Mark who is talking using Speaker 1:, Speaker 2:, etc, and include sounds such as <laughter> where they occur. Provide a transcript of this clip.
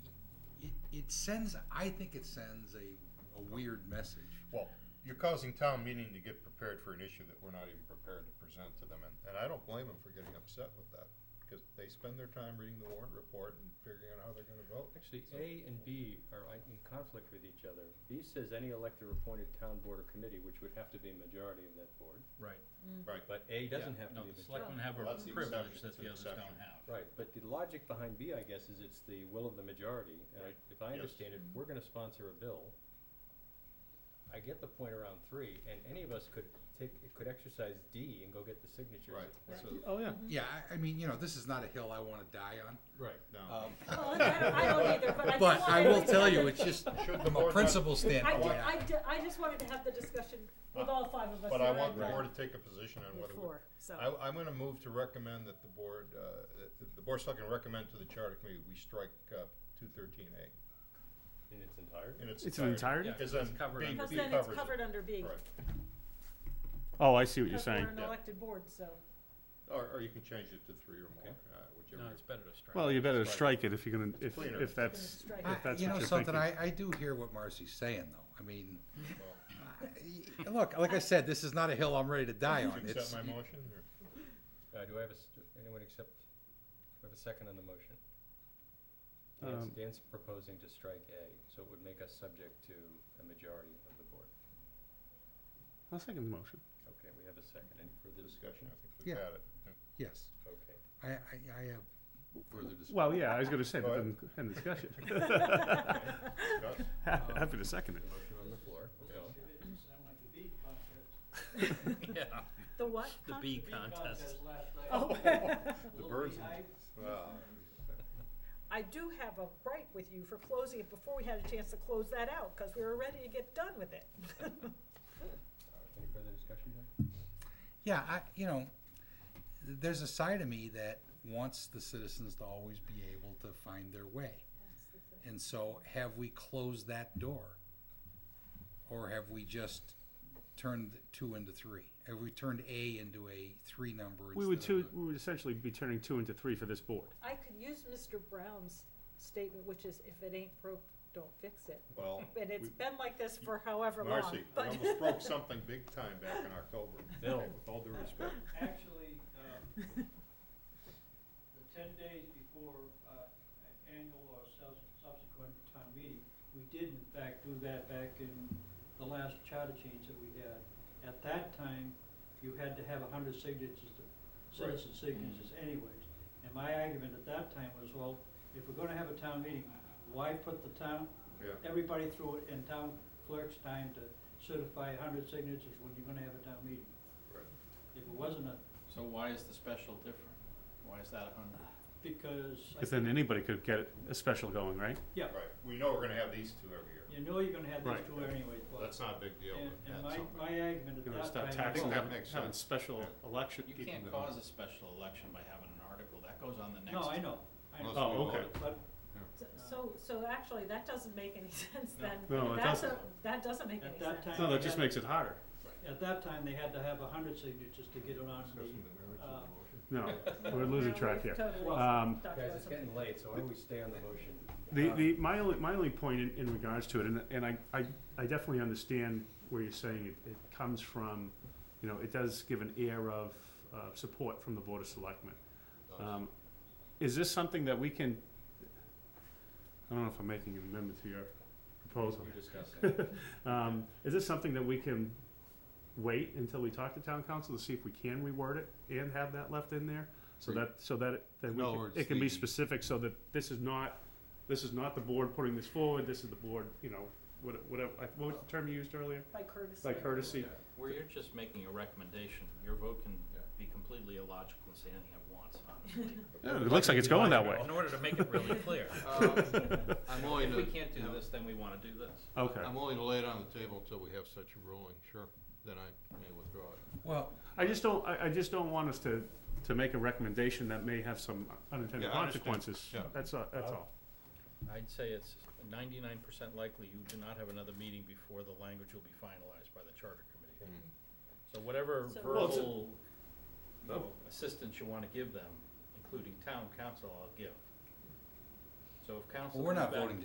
Speaker 1: it sends, I think it sends a, a weird message.
Speaker 2: Well, you're causing town meeting to get prepared for an issue that we're not even prepared to present to them, and, and I don't blame them for getting upset with that, because they spend their time reading the warrant report and figuring out how they're gonna vote.
Speaker 3: Actually,
Speaker 2: So-
Speaker 3: A and B are i- in conflict with each other. B says any elector appointed town board or committee, which would have to be a majority of that board.
Speaker 4: Right.
Speaker 2: Right,
Speaker 3: But A doesn't
Speaker 4: Yeah,
Speaker 3: have to be a
Speaker 4: No, the
Speaker 3: majority.
Speaker 4: selectmen have a
Speaker 2: Well, that's the
Speaker 4: privilege
Speaker 2: exception. It's
Speaker 4: that the
Speaker 2: an
Speaker 4: others
Speaker 2: exception.
Speaker 4: don't have.
Speaker 3: Right, but the logic behind B, I guess, is it's the will of the majority. And I-
Speaker 2: Right.
Speaker 3: if I
Speaker 2: Yes.
Speaker 3: understand it, we're gonna sponsor a bill. I get the point around three, and any of us could take, could exercise D and go get the signatures.
Speaker 2: Right,
Speaker 3: if-
Speaker 2: right.
Speaker 3: so-
Speaker 5: Oh, yeah.
Speaker 6: Mm-hmm.
Speaker 1: Yeah, I, I mean, you know, this is not a hill I want to die on.
Speaker 3: Right.
Speaker 2: no.
Speaker 1: Um,
Speaker 6: Well, I don't, I don't either, but <laughs> I just
Speaker 1: But I
Speaker 6: wanted
Speaker 1: will
Speaker 6: to-
Speaker 1: tell you, it's just,
Speaker 2: Should the
Speaker 1: from a
Speaker 2: board not-
Speaker 1: principle
Speaker 6: I,
Speaker 1: standpoint.
Speaker 6: ju- I, ju- I just wanted to have the discussion with all five of us.
Speaker 2: But I want the
Speaker 6: rather
Speaker 2: board to take a position on
Speaker 6: than
Speaker 2: whether we
Speaker 6: Before, so.
Speaker 2: I, I'm gonna move to recommend that the board, uh, that the board of selectmen recommend to the charter committee, we strike, uh, two thirteen A
Speaker 3: In its entirety.
Speaker 2: in its entirety.
Speaker 5: It's an entirety?
Speaker 4: Yeah,
Speaker 2: Because
Speaker 4: it's
Speaker 2: then
Speaker 4: covered
Speaker 2: B,
Speaker 4: under
Speaker 6: Because
Speaker 2: B
Speaker 6: then it's
Speaker 2: covers
Speaker 6: covered
Speaker 2: it.
Speaker 6: under B.
Speaker 2: Right,
Speaker 7: Oh, I see what you're
Speaker 6: Because
Speaker 7: saying.
Speaker 6: we're an
Speaker 2: Yeah.
Speaker 6: elected board, so.
Speaker 2: or, or you can change it to three or more,
Speaker 3: Okay.
Speaker 2: uh, whichever.
Speaker 4: No, it's better to strike.
Speaker 7: Well, you better
Speaker 2: Strike
Speaker 7: strike it if you're gonna, if,
Speaker 2: cleaner.
Speaker 7: if that's,
Speaker 6: Strike
Speaker 1: I-
Speaker 7: if that's
Speaker 1: you know
Speaker 7: what you're
Speaker 1: something,
Speaker 7: thinking.
Speaker 1: I, I do hear what Marcy's saying, though. I mean, I-
Speaker 6: Mm-hmm.
Speaker 1: look, like I said, this is not a hill I'm ready to die
Speaker 2: Do
Speaker 1: on.
Speaker 2: you accept
Speaker 1: It's,
Speaker 2: my motion, or?
Speaker 3: Uh, do I have a, s- do anyone accept, do I have a second on the motion? Dan's,
Speaker 7: Um,
Speaker 3: Dan's proposing to strike A, so it would make us subject to a majority of the board.
Speaker 7: I'll second the motion.
Speaker 3: Okay, we have a second. Any further
Speaker 2: discussion, I think
Speaker 1: Yeah.
Speaker 2: we've had it. Yeah.
Speaker 1: yes,
Speaker 3: Okay.
Speaker 1: I, I, I have further discussion.
Speaker 7: Well, yeah, I was gonna say,
Speaker 2: Go
Speaker 7: but
Speaker 2: ahead.
Speaker 7: then, end the discussion.
Speaker 2: <laughs> Discuss.
Speaker 7: <laughs> Happy to second it.
Speaker 3: Motion on the floor. Bill.
Speaker 4: Yeah,
Speaker 6: The what?
Speaker 4: the
Speaker 6: Con-
Speaker 4: bee contest.
Speaker 6: Oh.
Speaker 2: The birds, well,
Speaker 6: I do have a gripe with you for closing it before we had a chance to close that out, because we were ready to get done with it.
Speaker 3: Any further discussion there?
Speaker 1: Yeah, I, you know, there's a side of me that wants the citizens to always be able to find their way. And so have we closed that door? Or have we just turned two into three? Have we turned A into a three number?
Speaker 7: We would
Speaker 1: instead of
Speaker 7: two, we would essentially be turning two into three for this board.
Speaker 6: I could use Mr. Brown's statement, which is if it ain't broke, don't fix it.
Speaker 2: well,
Speaker 6: And it's been like this for however long,
Speaker 2: Marcy, we
Speaker 6: but.
Speaker 2: almost broke something big time back in October.
Speaker 3: Bill.
Speaker 2: Okay, With all due respect,
Speaker 8: Actually, um, the ten days before uh, an annual or sub- subsequent town meeting, we did in fact do that back in the last charter change that we had. At that time, you had to have a hundred signatures, to-
Speaker 2: Right. Mm-hmm.
Speaker 8: citizen signatures anyways. And my argument at that time was, well, if we're gonna have a town meeting, why put the town,
Speaker 2: yeah.
Speaker 8: everybody through it and town clerk's time to certify a hundred signatures when you're gonna have a town meeting?
Speaker 2: Right.
Speaker 8: If it wasn't a
Speaker 4: So why is the special different? Why is that a hundred?
Speaker 8: because. I
Speaker 7: Cause then
Speaker 8: think
Speaker 7: anybody could get a special going, right?
Speaker 8: Yeah,
Speaker 2: Right, we know we're gonna have these two every year.
Speaker 8: you know you're gonna have these
Speaker 7: Right.
Speaker 8: two anyways,
Speaker 2: Well,
Speaker 8: but-
Speaker 2: That's not a big deal.
Speaker 8: and,
Speaker 2: but
Speaker 8: and
Speaker 2: that's
Speaker 8: my,
Speaker 2: something.
Speaker 8: my argument
Speaker 7: You're gonna
Speaker 8: at
Speaker 7: stop
Speaker 8: that time.
Speaker 2: think
Speaker 7: taxing, them,
Speaker 2: that
Speaker 7: having,
Speaker 2: makes sense.
Speaker 7: special election
Speaker 4: You
Speaker 7: people.
Speaker 4: can't
Speaker 7: to-
Speaker 4: cause a special election by having an article, that goes on the next.
Speaker 8: No, I know, I
Speaker 2: Unless
Speaker 8: know,
Speaker 7: Oh,
Speaker 2: we
Speaker 7: okay.
Speaker 2: vote.
Speaker 8: but
Speaker 6: So- So, so actually, that doesn't make any <laughs> sense then.
Speaker 7: No, it
Speaker 6: That's a-
Speaker 7: doesn't.
Speaker 6: That doesn't make any
Speaker 8: at that
Speaker 6: sense.
Speaker 8: time.
Speaker 7: No,
Speaker 8: they
Speaker 7: that just
Speaker 8: had-
Speaker 7: makes it harder.
Speaker 8: At that time, they had to have a hundred signatures to get it on
Speaker 2: Discussing
Speaker 8: the,
Speaker 2: the merits of
Speaker 8: uh,
Speaker 2: the motion.
Speaker 7: No, we're losing track here.
Speaker 6: Totally.
Speaker 7: Um,
Speaker 3: Guys,
Speaker 6: Talked about
Speaker 3: it's
Speaker 6: something.
Speaker 3: getting late, so why don't we stay on the motion?
Speaker 7: The,
Speaker 3: Uh,
Speaker 7: the, my only, my only point in, in regards to it, and, and I, I, I definitely understand where you're saying it, it comes from, you know, it does give an air of, uh, support from the Board of Selectmen. Um, is this something that we can, I don't know if I'm making an amendment to your proposal.
Speaker 3: We discussed it.
Speaker 7: Um, is this something that we can wait until we talk to town council to see if we can reword it and have that left in there? So that, so that, it- that
Speaker 1: In
Speaker 7: we
Speaker 1: other
Speaker 7: can,
Speaker 1: words,
Speaker 7: it can
Speaker 1: the-
Speaker 7: be specific, so that this is not, this is not the board putting this forward, this is the board, you know, what- whatever, I- what was the term you used earlier?
Speaker 6: By courtesy.
Speaker 7: By courtesy,
Speaker 4: Where you're just making a recommendation, your vote can
Speaker 2: Yeah.
Speaker 4: be completely illogical and say anything it wants, honestly. <laughs>
Speaker 7: Yeah, <laughs> it looks like it's going that way.
Speaker 4: In order to make it <laughs> really clear.
Speaker 9: I'm willing
Speaker 4: If
Speaker 9: to,
Speaker 4: we can't do this, then we wanna do this.
Speaker 7: Okay,
Speaker 9: I'm willing to lay it on the table until we have such a ruling, sure, then I may withdraw it.
Speaker 1: Well,
Speaker 7: I just don't, I, I just don't want us to, to make a recommendation that may have some
Speaker 2: Yeah,
Speaker 7: unintended
Speaker 2: I understand.
Speaker 7: consequences,
Speaker 2: Yeah.
Speaker 7: that's, all- that's all.
Speaker 4: I'd say it's ninety-nine percent likely you do not have another meeting before the language will be finalized by the charter committee.
Speaker 2: Hmm.
Speaker 4: So whatever
Speaker 6: So- Well,
Speaker 7: it's a-
Speaker 4: verbal, you know, assistance you wanna give them, including town council, I'll give. So if council.
Speaker 1: we're
Speaker 4: comes
Speaker 1: not
Speaker 4: back-
Speaker 1: voting